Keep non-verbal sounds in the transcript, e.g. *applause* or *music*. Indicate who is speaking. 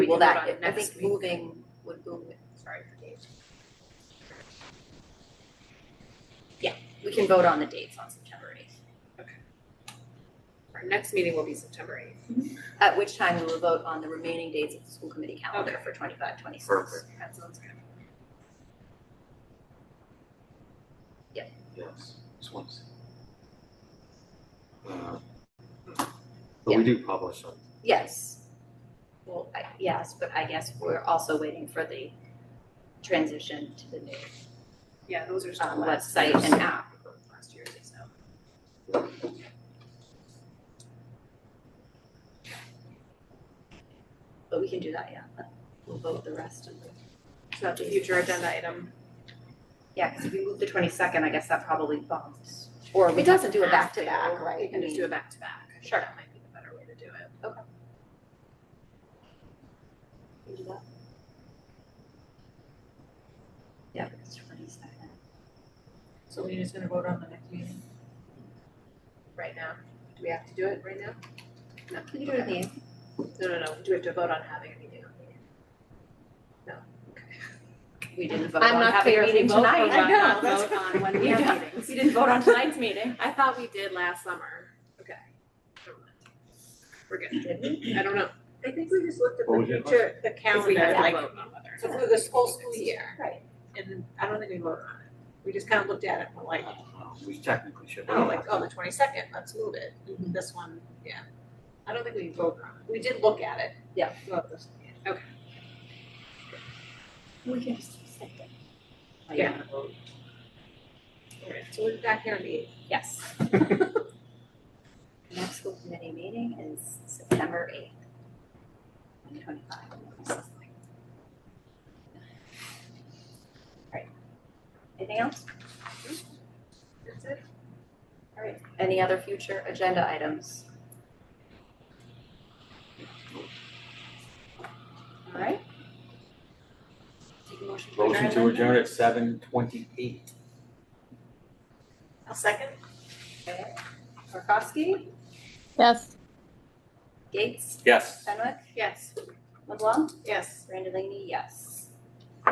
Speaker 1: We
Speaker 2: Well,
Speaker 1: can vote
Speaker 2: that,
Speaker 1: on it
Speaker 2: I
Speaker 1: next
Speaker 2: think
Speaker 1: week.
Speaker 2: moving would move it, sorry for Dave. Yeah, we can vote on the dates on September eighth,
Speaker 1: Our next meeting will be September eighth.
Speaker 2: Mm-hmm. at which time we will vote on the remaining dates of the school committee calendar for twenty-five, twenty-six.
Speaker 3: Perfect.
Speaker 1: That sounds good.
Speaker 3: Yes, just want to see. Uh, But we do publish on,
Speaker 2: Yes. Well, I, yes, but I guess we're also waiting for the transition to the new
Speaker 1: Yeah, those are
Speaker 2: um,
Speaker 1: some last,
Speaker 2: website and app.
Speaker 1: last year's, so.
Speaker 2: But we can do that, yeah, but we'll vote the rest of the,
Speaker 1: So that's a future agenda item.
Speaker 2: yeah, because if we move the twenty-second, I guess that probably bumps. Or we doesn't do a back-to-back, right?
Speaker 1: We can
Speaker 2: I
Speaker 1: just
Speaker 2: mean-
Speaker 1: do a back to back.
Speaker 2: Sure.
Speaker 1: That might be the better way to do it.
Speaker 2: We do that. Yeah, it's twenty-second.
Speaker 1: So we're just gonna vote on the next meeting? Right now? Do we have to do it right now? No.
Speaker 2: Can you do it in the eighth?
Speaker 1: No, no, no. Do we have to vote on having a meeting on the eighth?
Speaker 2: We didn't vote on having a meeting
Speaker 1: vote
Speaker 2: tonight.
Speaker 1: on
Speaker 2: I know,
Speaker 1: not
Speaker 2: that's-
Speaker 1: vote on when we
Speaker 2: Yeah.
Speaker 1: have meetings.
Speaker 2: We didn't vote on tonight's meeting.
Speaker 1: I thought we did last summer. Okay. Never mind. We're good.
Speaker 2: Did we?
Speaker 1: I don't know.
Speaker 4: I think we just looked at
Speaker 3: Well, we
Speaker 4: the
Speaker 3: did.
Speaker 4: future, the
Speaker 1: If we
Speaker 4: calendar,
Speaker 1: had to
Speaker 4: like,
Speaker 1: vote on whether.
Speaker 4: so for this whole school year.
Speaker 2: Right.
Speaker 4: And I don't think we voted on it. We just kind of looked at it and were like,
Speaker 3: uh, we technically should.
Speaker 4: oh, like, oh, the twenty-second, let's move it. This one, yeah. Mm-hmm. I don't think we voted on it. We did look at it.
Speaker 2: Yeah.
Speaker 4: throughout this year.
Speaker 2: *laughs* We can just accept it.
Speaker 1: Yeah.
Speaker 4: All right, so we're back here on the eighth.
Speaker 2: *laughs* Yes. The next school committee meeting is September eighth. Twenty twenty-five. Right. Anything else?
Speaker 1: That's it?
Speaker 2: All right. Any other future agenda items? All right. Take a motion to adjourn.
Speaker 3: Motion to
Speaker 2: then.
Speaker 3: adjourn at seven twenty-eight.
Speaker 4: I'll second.
Speaker 2: Okay. Markowski,
Speaker 5: Yes.
Speaker 2: Gates,
Speaker 3: Yes.
Speaker 2: Fenwick,
Speaker 1: Yes.
Speaker 2: LeBlanc,
Speaker 4: Yes.
Speaker 2: Brandon Laney, yes.